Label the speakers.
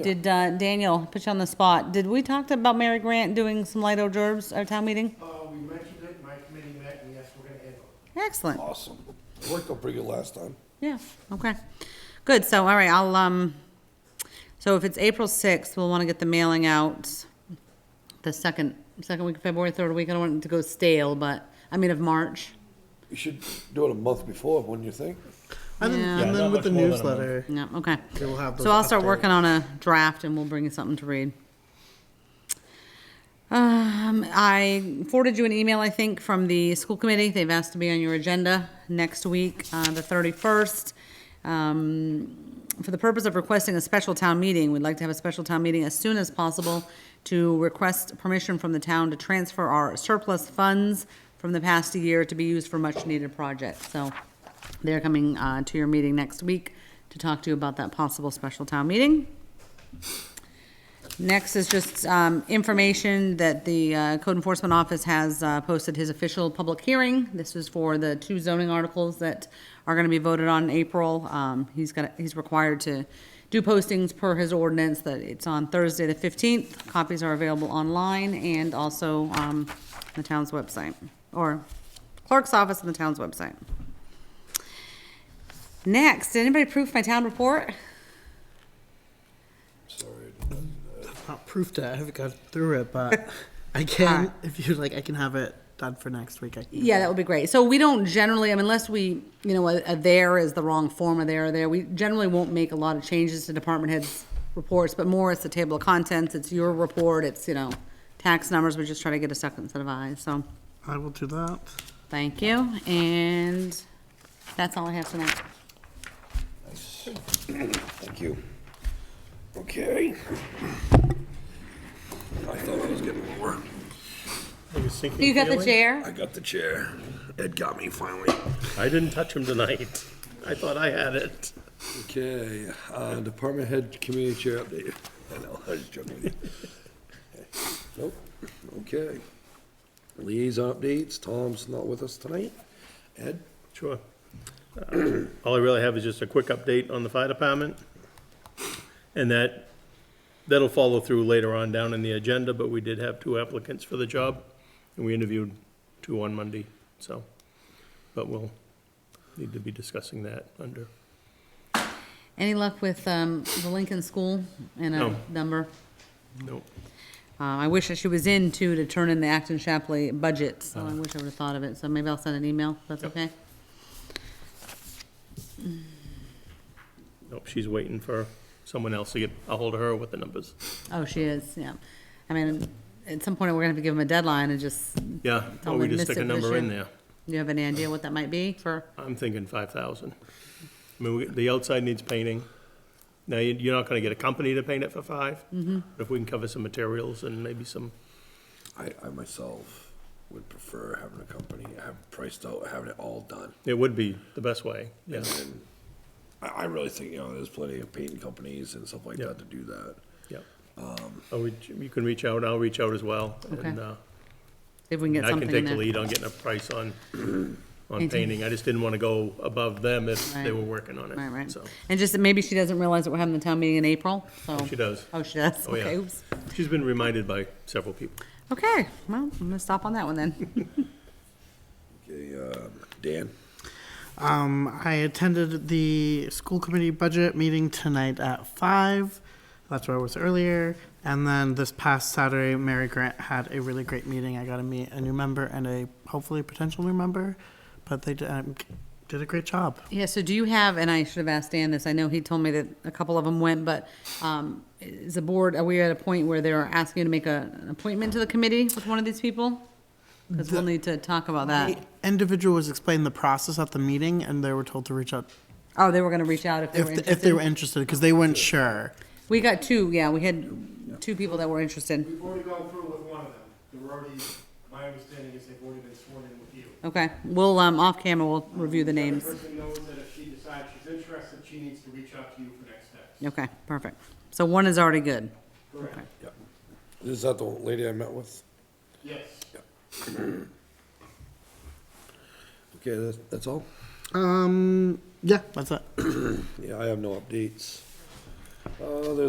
Speaker 1: Did, uh, Daniel, put you on the spot, did we talk about Mary Grant doing some light hors d'oeuvres at town meeting?
Speaker 2: Uh, we mentioned it, my committee met, and yes, we're gonna handle it.
Speaker 1: Excellent,
Speaker 3: Awesome. It Worked out pretty good last time.
Speaker 1: yeah, okay. Good, so, all right, I'll, um, so if it's April sixth, we'll wanna get the mailing out the second, second week of February, third week, I don't want it to go stale, but, I mean of March.
Speaker 3: You should do it a month before, wouldn't you think?
Speaker 2: And
Speaker 1: Yeah.
Speaker 2: then,
Speaker 1: Yeah,
Speaker 2: and
Speaker 4: not
Speaker 2: then with
Speaker 4: much
Speaker 2: the
Speaker 4: more than a month.
Speaker 2: newsletter,
Speaker 1: Yeah, okay.
Speaker 2: they will have those.
Speaker 1: So I'll start
Speaker 2: updated.
Speaker 1: working on a draft and we'll bring you something to read. Um, I forwarded you an email, I think, from the school committee. They've asked to be on your agenda next week, uh, the thirty-first. Um, for the purpose of requesting a special town meeting, we'd like to have a special town meeting as soon as possible to request permission from the town to transfer our surplus funds from the past year to be used for much-needed projects. So they're coming uh, to your meeting next week to talk to you about that possible special town meeting. Next is just um, information that the uh, Code Enforcement Office has uh, posted his official public hearing. This is for the two zoning articles that are going to be voted on in April. Um, He's got, he's required to do postings per his ordinance, that it's on Thursday, the 15th. Copies are available online and also um, the town's website, or clerk's office and the town's website. Next, did anybody proof my town report?
Speaker 2: Not proof that I haven't got through it, but I can, if you like, I can have it done for next week. I can.
Speaker 1: Yeah, that would be great. So we don't generally, I mean, unless we, you know, a, a there is the wrong form of there or there, we generally won't make a lot of changes to department heads' reports, but more it's the table of contents, it's your report, it's, you know, tax numbers, we just try to get a second set of eyes, so,
Speaker 2: I will do that.
Speaker 1: thank you, and that's all I have tonight.
Speaker 3: Thank you. Okay. I thought I was getting lower.
Speaker 1: You got the
Speaker 3: I
Speaker 1: chair?
Speaker 3: got the chair. Ed got me finally.
Speaker 4: I didn't touch him tonight. I thought I had it.
Speaker 3: Okay, uh, department head community chair update. I know, I was joking with you. Nope, okay. Liaison updates, Tom's not with us tonight. Ed?
Speaker 4: Sure. Uh, All I really have is just a quick update on the fire department. And that, that'll follow through later on down in the agenda, but we did have two applicants for the job. And we interviewed two on Monday, so, but we'll need to be discussing that under,
Speaker 1: Any luck with, um, the Lincoln School and a
Speaker 4: No.
Speaker 1: number?
Speaker 4: no.
Speaker 1: Uh, I wish that she was in too, to turn in the Acton Shapley budget, so I wish I would've thought of it, so maybe I'll send an email, if that's
Speaker 4: Uh-huh. Yep.
Speaker 1: okay?
Speaker 4: Nope, she's waiting for someone else to get a hold of her with the numbers.
Speaker 1: Oh, she is, yeah. I mean, at some point, we're gonna have to give them a deadline and just,
Speaker 4: Yeah,
Speaker 1: Tell
Speaker 4: or we
Speaker 1: them
Speaker 4: just stick a
Speaker 1: miss
Speaker 4: number in
Speaker 1: admission.
Speaker 4: there.
Speaker 1: you have any idea what that might be for?
Speaker 4: I'm thinking five thousand. I mean, we- the outside needs painting. Now, you- you're not gonna get a company to paint it for five.
Speaker 1: Mm-hmm.
Speaker 4: But if we can cover some materials and maybe some,
Speaker 3: I, I myself would prefer having a company, have priced out, having it all done.
Speaker 4: it would be the best way, yeah.
Speaker 3: And I, I really think, you know, there's plenty of painting companies and stuff like
Speaker 4: Yeah.
Speaker 3: that to do that.
Speaker 4: Yep. Oh, we- you can reach out, I'll reach out as well.
Speaker 1: Okay.
Speaker 4: And uh,
Speaker 1: If we can get
Speaker 4: I can
Speaker 1: something
Speaker 4: take
Speaker 1: in
Speaker 4: the
Speaker 1: there.
Speaker 4: lead on getting a price on, on
Speaker 1: Painting.
Speaker 4: painting. I just didn't wanna go above them if they
Speaker 1: Right.
Speaker 4: were working on
Speaker 1: Right, right.
Speaker 4: it, so.
Speaker 1: And just, that maybe she doesn't realize that we're having the town meeting in April, so.
Speaker 4: She does.
Speaker 1: Oh, she does?
Speaker 4: Oh, yeah.
Speaker 1: Okay, oops.
Speaker 4: She's been reminded by several people.
Speaker 1: Okay, well, I'm gonna stop on that one then.
Speaker 3: Okay, uh, Dan?
Speaker 2: Um, I attended the school committee budget meeting tonight at five. That's where I was earlier. And then this past Saturday, Mary Grant had a really great meeting. I got to meet a new member and a hopefully potential new member, but they did, um, did a great job.
Speaker 1: Yeah, so do you have, and I should have asked Dan this, I know he told me that a couple of them went, but, um, is the board, are we at a point where they're asking you to make a, an appointment to the committee with one of these people? Cause we'll need to talk about
Speaker 2: The
Speaker 1: that.
Speaker 2: individual was explaining the process at the meeting, and they were told to reach out
Speaker 1: Oh, they were gonna reach out if they were
Speaker 2: if,
Speaker 1: interested?
Speaker 2: if they were interested because they weren't sure.
Speaker 1: We got two, yeah, we had two people that were interested.
Speaker 5: We've already gone through with one of them. They were already, my understanding is they've already been sworn in with you.
Speaker 1: Okay, we'll, um, off camera, we'll review the
Speaker 5: The
Speaker 1: names.
Speaker 5: person knows that if she decides she's interested, she needs to reach out to you for next steps.
Speaker 1: Okay, perfect. So one is already good.
Speaker 5: Correct.
Speaker 3: Yep. Is that the lady I met with?
Speaker 5: Yes.
Speaker 3: Okay, that's, that's all?
Speaker 2: Um, yeah, that's it.
Speaker 3: Yeah, I have no updates. Uh, there's